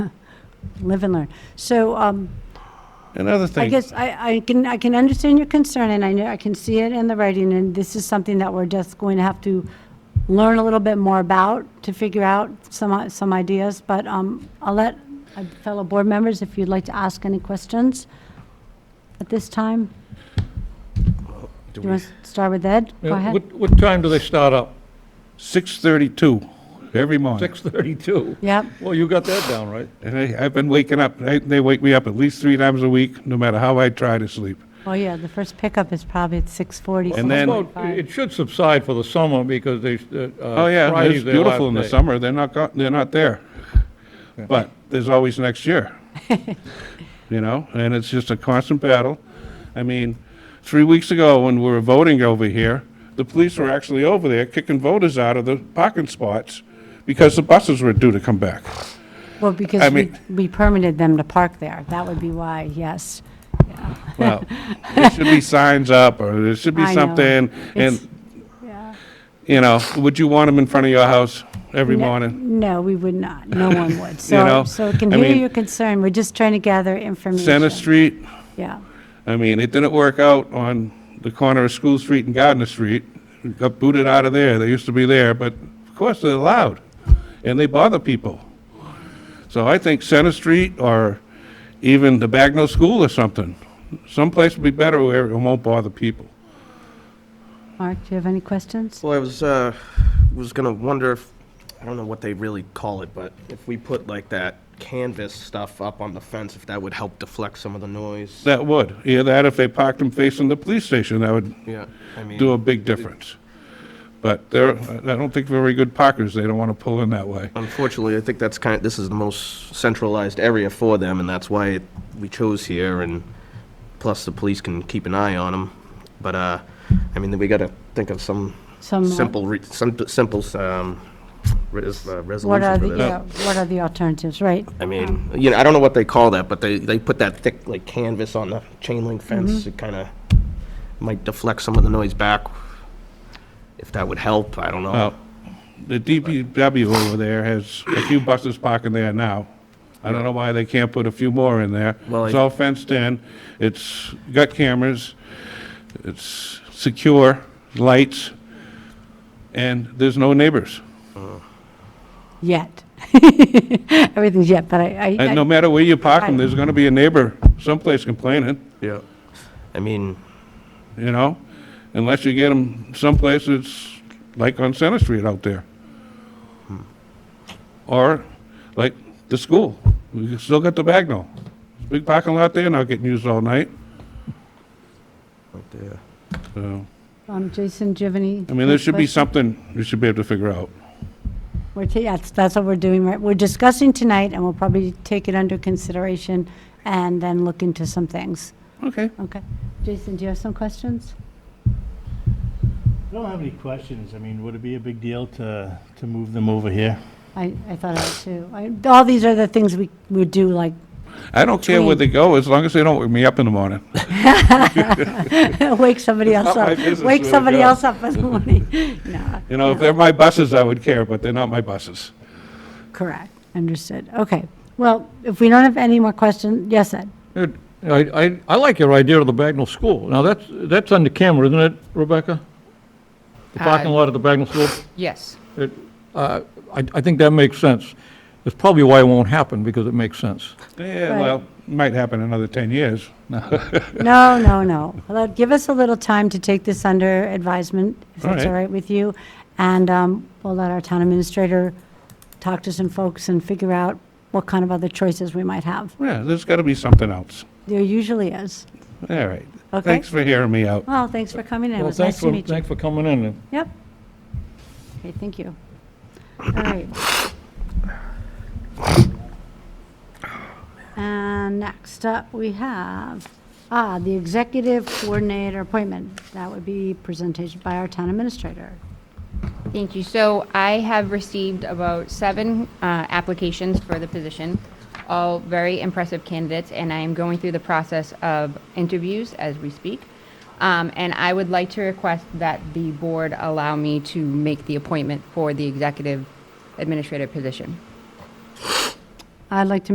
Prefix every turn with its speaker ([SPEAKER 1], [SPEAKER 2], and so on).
[SPEAKER 1] live and learn. So um,
[SPEAKER 2] Another
[SPEAKER 1] I
[SPEAKER 2] thing,
[SPEAKER 1] guess I, I can, I can understand your concern, and I know, I can see it in the writing, and this is something that we're just going to have to learn a little bit more about to figure out some, i- some ideas, but um, I'll let uh, fellow board members, if you'd like to ask any questions at this time. Do you want to start with Ed? Go
[SPEAKER 3] Yeah,
[SPEAKER 1] ahead.
[SPEAKER 3] Uh, What, what time do they start up?
[SPEAKER 2] 6:32 every morning.
[SPEAKER 3] 6:32?
[SPEAKER 1] Yep,
[SPEAKER 3] Well, you got that down, right?
[SPEAKER 2] And I- I've been waking up, they- they wake me up at least three times a week, no matter how I try to sleep.
[SPEAKER 1] oh yeah, the first pickup is probably at 6:40.
[SPEAKER 2] And then-
[SPEAKER 3] Well, it should subside for the summer because they, uh,
[SPEAKER 2] Oh, yeah,
[SPEAKER 3] Friday's
[SPEAKER 2] it's
[SPEAKER 3] their last
[SPEAKER 2] beautiful in the
[SPEAKER 3] day.
[SPEAKER 2] summer, they're not, go- they're not there. But there's always next year, you know, and it's just a constant battle. I mean, three weeks ago, when we were voting over here, the police were actually over there kicking voters out of the parking spots because the buses were due to come back.
[SPEAKER 1] Well,
[SPEAKER 2] I
[SPEAKER 1] because we
[SPEAKER 2] mean-
[SPEAKER 1] we permitted them to park there. That would be why, yes.
[SPEAKER 2] Well, there should be signs up, or there should be
[SPEAKER 1] I know.
[SPEAKER 2] something,
[SPEAKER 1] It's-
[SPEAKER 2] and, you know, would you want them in front of your house every
[SPEAKER 1] No-
[SPEAKER 2] morning?
[SPEAKER 1] No, we would not. No one would. So,
[SPEAKER 2] know,
[SPEAKER 1] so I can
[SPEAKER 2] I
[SPEAKER 1] hear
[SPEAKER 2] mean-
[SPEAKER 1] your concern. We're just trying to gather information.
[SPEAKER 2] Center Street,
[SPEAKER 1] Yeah,
[SPEAKER 2] I mean, it didn't work out on the corner of School Street and Gardner Street. We Got booted out of there. They used to be there, but of course they're loud, and they bother people. So I think Center Street or even the Bagnell School or something, someplace would be better where it won't bother people.
[SPEAKER 1] Mark, do you have any questions?
[SPEAKER 4] Well, I was, uh, was gonna wonder if, I don't know what they really call it, but if we put like that canvas stuff up on the fence, if that would help deflect some of the noise.
[SPEAKER 2] That would. Either that, if they parked them facing the police station, that would
[SPEAKER 4] Yeah, I mean.
[SPEAKER 2] do a big difference. But they're, I don't think very good parkers. They don't want to pull in that way.
[SPEAKER 4] Unfortunately, I think that's kind of, this is the most centralized area for them, and that's why it- we chose here, and plus the police can keep an eye on them. But, uh, I mean, we gotta think of some
[SPEAKER 1] Some, uh,
[SPEAKER 4] simple, re- some simple, um, res- uh,
[SPEAKER 1] What are
[SPEAKER 4] resolution for
[SPEAKER 1] the,
[SPEAKER 4] this.
[SPEAKER 1] yeah, what are the alternatives, right?
[SPEAKER 4] I mean, you know, I don't know what they call that, but they, they put that thick, like, canvas on the chain link fence. It kind of might deflect some of the noise back, if that would help, I don't know.
[SPEAKER 2] Well, the DPW over there has a few buses parking there now. I don't know why they can't put a few more in there.
[SPEAKER 4] Well,
[SPEAKER 2] It's
[SPEAKER 4] I-
[SPEAKER 2] all fenced in, it's got cameras, it's secure, lights, and there's no neighbors.
[SPEAKER 1] Yet. Everything's yet, but I,
[SPEAKER 2] And no
[SPEAKER 1] I,
[SPEAKER 2] matter where you park them,
[SPEAKER 1] I-
[SPEAKER 2] there's gonna be a neighbor someplace complaining,
[SPEAKER 4] Yeah. I mean,
[SPEAKER 2] you know? Unless you get them someplace that's like on Center Street out there.
[SPEAKER 4] Hmm.
[SPEAKER 2] Or like the school. We still got the Bagnell. Big parking lot there, not getting used all night.
[SPEAKER 4] right there.
[SPEAKER 2] So,
[SPEAKER 1] um, Jason, do you have any?
[SPEAKER 2] I mean, there should be
[SPEAKER 1] questions?
[SPEAKER 2] something we should be able to figure out.
[SPEAKER 1] We're, ta- yeah, that's- that's what we're doing, right? We're discussing tonight, and we'll probably take it under consideration and then look into some things.
[SPEAKER 2] Okay.
[SPEAKER 1] Okay. Jason, do you have some questions?
[SPEAKER 5] I don't have any questions. I mean, would it be a big deal to, to move them over here?
[SPEAKER 1] I, I thought I too. I- All these are the things we, we do, like,
[SPEAKER 2] I don't care where they go, as long as they don't wake me up in the morning.
[SPEAKER 1] wake somebody else
[SPEAKER 2] not my
[SPEAKER 1] up.
[SPEAKER 2] business where
[SPEAKER 1] Wake
[SPEAKER 2] they
[SPEAKER 1] somebody
[SPEAKER 2] go.
[SPEAKER 1] else up in the morning. No,
[SPEAKER 2] You know, if they're my buses, I would care, but they're not my buses.
[SPEAKER 1] correct, understood. Okay. Well, if we don't have any more questions, yes, Ed?
[SPEAKER 3] It- I, I, I like your idea of the Bagnell School. Now, that's, that's under camera, isn't it, Rebecca? The parking
[SPEAKER 6] Uh,
[SPEAKER 3] lot at the Bagnell School?
[SPEAKER 6] Yes.
[SPEAKER 3] It, uh, I, I think that makes sense. That's probably why it won't happen, because it makes sense.
[SPEAKER 2] Yeah,
[SPEAKER 1] Right.
[SPEAKER 2] well, might happen in another 10 years.
[SPEAKER 1] No, no, no. Well, Give us a little time to take this under advisement, if
[SPEAKER 2] All
[SPEAKER 1] that's
[SPEAKER 2] right.
[SPEAKER 1] all right with you. And um, we'll let our town administrator talk to some folks and figure out what kind of other choices we might have.
[SPEAKER 2] Yeah, there's got to be something else.
[SPEAKER 1] There usually is.
[SPEAKER 2] All right.
[SPEAKER 1] Okay.
[SPEAKER 2] Thanks for hearing me out.
[SPEAKER 1] Well, thanks for coming in. It
[SPEAKER 3] Well,
[SPEAKER 1] was
[SPEAKER 3] thanks
[SPEAKER 1] nice
[SPEAKER 3] for
[SPEAKER 1] to meet you.
[SPEAKER 3] Thanks for coming in. and-
[SPEAKER 1] Yep. Okay, thank you. All right. And next up, we have, ah, the executive coordinator appointment. That would be presentation by our town administrator.
[SPEAKER 6] Thank you. So I have received about seven uh, applications for the position, all very impressive candidates, and I am going through the process of interviews as we speak. Um, And I would like to request that the board allow me to make the appointment for the executive administrative position.
[SPEAKER 1] I'd like to